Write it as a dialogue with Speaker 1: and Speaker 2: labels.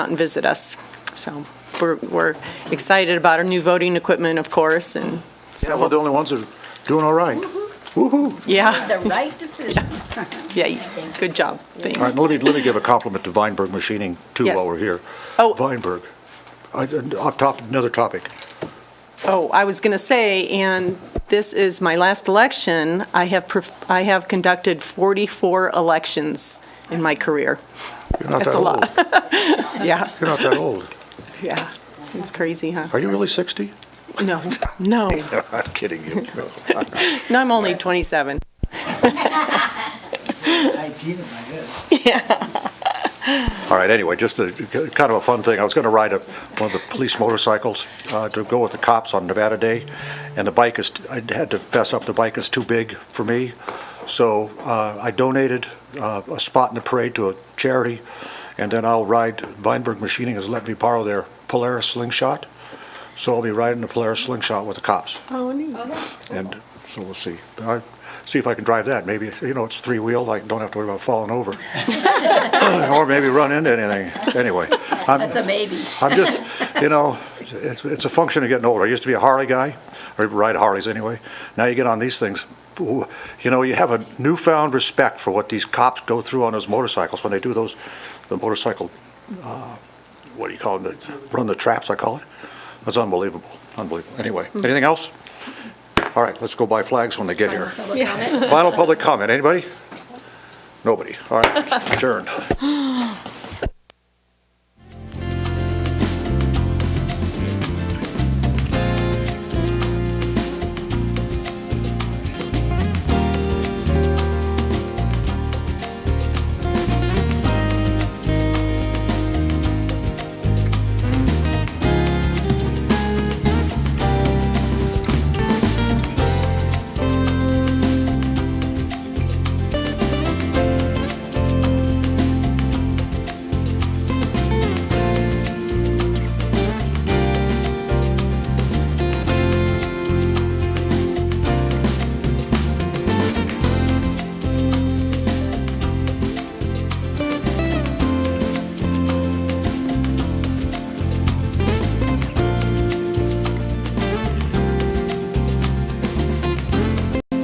Speaker 1: out and visit us. So we're, we're excited about our new voting equipment, of course, and
Speaker 2: Yeah, we're the
Speaker 1: so,
Speaker 2: only ones that are doing all right.
Speaker 1: yeah,
Speaker 3: The right decision.
Speaker 1: yeah, good job,
Speaker 2: All right,
Speaker 1: thanks.
Speaker 2: now let me, let me give a compliment to Weinberg Machining, too,
Speaker 1: Yes.
Speaker 2: while we're here.
Speaker 1: Oh.
Speaker 2: Weinberg, I- and off top, another topic.
Speaker 1: Oh, I was going to say, and this is my last election, I have, perf- I have conducted 44 elections in my career.
Speaker 2: You're not
Speaker 1: That's
Speaker 2: that
Speaker 1: a
Speaker 2: old.
Speaker 1: lot.
Speaker 2: Oh.
Speaker 1: Yeah,
Speaker 2: You're not that old.
Speaker 1: yeah, it's crazy, huh?
Speaker 2: Are you really 60?
Speaker 1: No, no,
Speaker 2: I'm kidding you.
Speaker 1: no, I'm only 27.
Speaker 4: Nineteen in my head.
Speaker 2: All right, anyway, just a, kind of a fun thing. I was going to ride a, one of the police motorcycles uh, to go with the cops on Nevada Day, and the bike is, I had to fess up, the bike is too big for me. So uh, I donated uh, a spot in the parade to a charity, and then I'll ride, Weinberg Machining has let me borrow their Polaris slingshot. So I'll be riding the Polaris slingshot with the cops,
Speaker 1: Oh, neat.
Speaker 2: and so we'll see. I- See if I can drive that, maybe, you know, it's three-wheel, I don't have to worry about falling over. Or maybe run into anything, anyway. I'm-
Speaker 3: That's a maybe.
Speaker 2: I'm just, you know, it's, it's a function of getting older. I used to be a Harley guy, or ride Harleys anyway. Now you get on these things, ooh, you know, you have a newfound respect for what these cops go through on those motorcycles when they do those, the motorcycle, uh, what do you call them, the- run the traps, I call it. That's unbelievable, unbelievable. Anyway, anything else? All right, let's go buy flags when they get here. Final public comment, anybody? Nobody, all right, adjourned.